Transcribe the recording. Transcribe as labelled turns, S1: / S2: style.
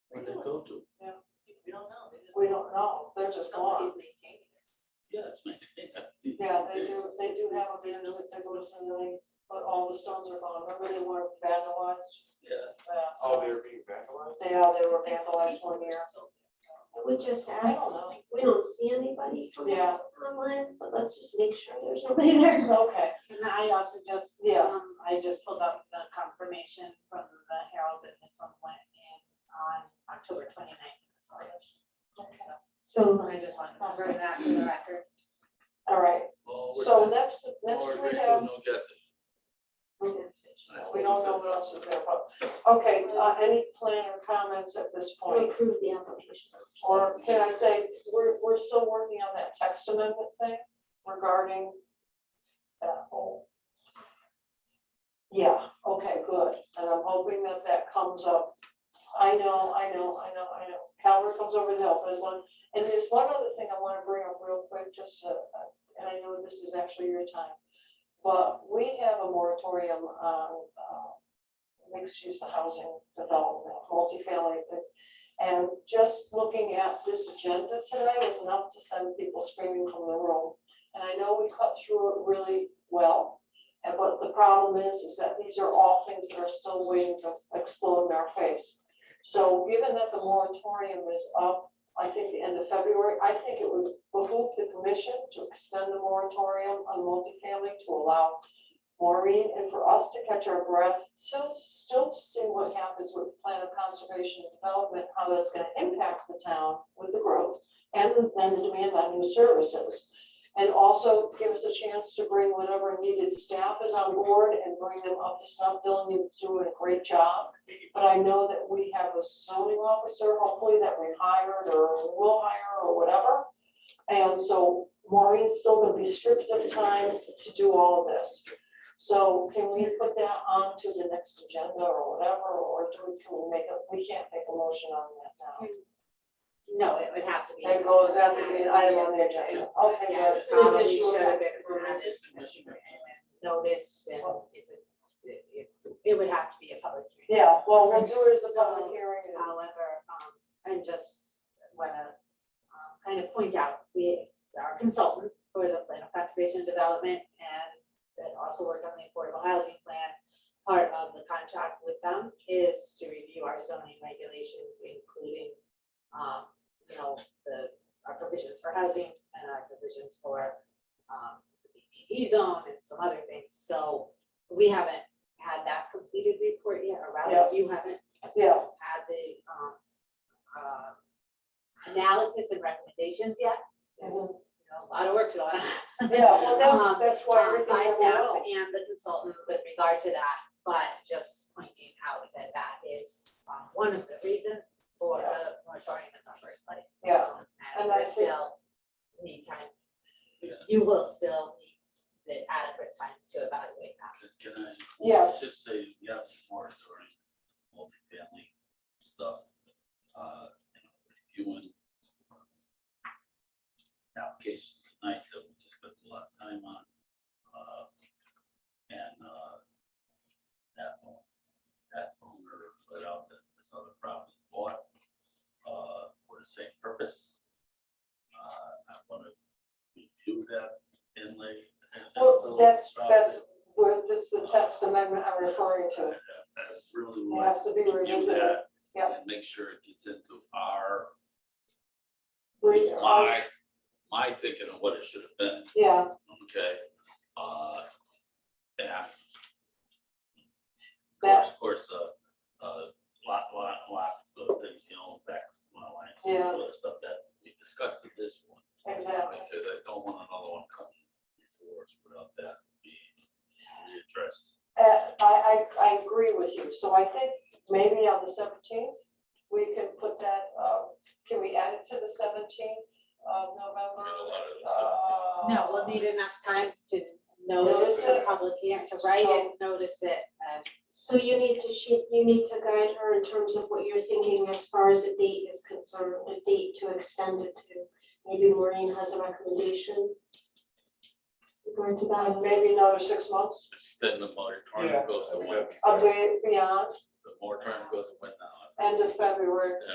S1: don't do.
S2: We don't know. They just-
S3: We don't know, they're just
S2: Somebody's
S3: gone.
S2: maintaining it.
S1: Yeah, it's my, yeah, see.
S3: Yeah, they
S1: there's-
S3: do, they do have a business, they go to some meetings, but all the stones are gone, remember they were vandalized?
S1: Yeah,
S3: Yeah,
S4: Oh,
S3: so
S4: they're being vandalized?
S3: they are, they were vandalized one year.
S5: We just
S3: I
S5: asked,
S3: don't know,
S5: we don't see anybody from
S3: Yeah.
S5: online, but let's just make sure there's nobody there.
S3: okay,
S6: And I also just,
S3: Yeah.
S6: um, I just pulled up the confirmation from the Herald that this one went in on October 29th. so I just-
S5: So,
S6: I just wanted to bring that to the record.
S3: all right,
S1: well, we're
S3: so
S1: done.
S3: next, next
S1: Lower
S3: we
S1: grade,
S3: have,
S1: No guessing. That's what we
S3: we don't know
S1: said.
S3: what else is there, but, okay, uh, any plan or comments at this
S5: we
S3: point?
S5: approve the application.
S3: Or can I say, we're, we're still working on that text amendment thing regarding that whole. Yeah, okay, good, and I'm hoping that that comes up. I know, I know, I know, I know, Calvert comes over to help us on, and there's one other thing I wanna bring up real quick, just to, uh, and I know this is actually your time. But we have a moratorium on, uh, mixed-use housing development, multifamily, the and just looking at this agenda today was enough to send people screaming from the room. And I know we cut through it really well. And what the problem is, is that these are all things that are still waiting to explode in our face. So given that the moratorium is up, I think the end of February, I think it would behoove the commission to extend the moratorium on multifamily to allow Maureen and for us to catch our breath, still, still to see what happens with the plan of conservation and development, how that's gonna impact the town with the growth and the, and the demand on new services. And also give us a chance to bring whatever needed staff is on board and bring them up to snuff. Dylan, you're doing a great job. But I know that we have a zoning officer, hopefully that we hired or will hire or whatever. And so Maureen's still gonna be stripped of time to do all of this. So can we put that on to the next agenda or whatever, or do we, can we make a, we can't make a motion on that now?
S6: No, it would have to be.
S3: It goes after the item on the agenda, okay,
S6: Yeah,
S3: yeah.
S6: it
S3: so we
S6: probably
S3: just use
S6: should have
S3: that.
S6: been added
S1: Yes, Commissioner.
S6: notice and it's a, it, it- it would have to be a public hearing.
S3: Yeah, well, we'll do it as a public hearing, and-
S6: However, um, and just wanna, um, kind of point out, we, our consultant for the plan of conservation and development and that also worked on the affordable housing plan, part of the contract with them is to review our zoning regulations, including, um, you know, the, our provisions for housing and our provisions for, um, the BTD zone and some other things. So we haven't had that completed report yet, or
S3: Yeah.
S6: rather, you haven't
S3: yeah,
S6: had the, um, um, analysis and recommendations yet. There's,
S3: Mhm.
S6: you know, a lot of work to go on.
S3: yeah, well,
S6: Um,
S3: that's, that's why
S6: um,
S3: everything
S6: By
S3: is
S6: staff and the consultant with regard to that, but just pointing out that that is, um, one of the reasons for the moratorium in the first place.
S3: Yeah,
S6: And
S3: and I
S6: we
S3: think-
S6: still need time,
S1: Yeah.
S6: you will still need the adequate time to evaluate that.
S1: Can- Can I?
S3: Yes.
S1: Just say, yeah, moratorium, multifamily stuff, uh, you know, reviewing. Applications tonight that we just spent a lot of time on, uh, and, uh, that one, that owner put out that this other property bought, uh, for the same purpose. Uh, I wanna review that inlay. and that
S3: Well,
S1: little
S3: that's,
S1: property.
S3: that's where this is the text amendment I'm referring to,
S1: That's really
S3: it
S1: what.
S3: has to be
S1: we do
S3: revisited.
S1: that
S3: Yep.
S1: And make sure it gets into our,
S3: Re-
S1: my, my thinking of what it should have been,
S3: Yeah,
S1: okay? Uh, yeah.
S3: That-
S1: Of course, uh, uh, lot, lot, lot of things, you know, facts, my lines,
S3: Yeah.
S1: all that stuff that we discussed in this one.
S3: exactly,
S1: Because I don't want another one coming before us without that being addressed.
S3: uh, I, I, I agree with you, so I think maybe on the seventeenth, we can put that, uh, can we add it to the seventeenth of
S1: We
S3: November?
S1: had a lot of those, uh,
S3: Uh,
S6: No, we'll need enough time to notice the
S1: it.
S6: public hearing, to write it, notice it, and
S5: So you need to, she, you need to guide her in terms of what you're thinking as far as a date is concerned, a date to extend it to. Maybe Maureen has a recommendation. Regarding to
S3: uh,
S5: that,
S3: Maybe another six months,
S1: Extend the moratorium
S4: Yeah.
S1: goes to
S4: I mean,
S3: Oh,
S1: when,
S4: that'd be
S3: a
S4: fair.
S3: day beyond,
S1: the moratorium goes to when uh, now.
S3: end of February.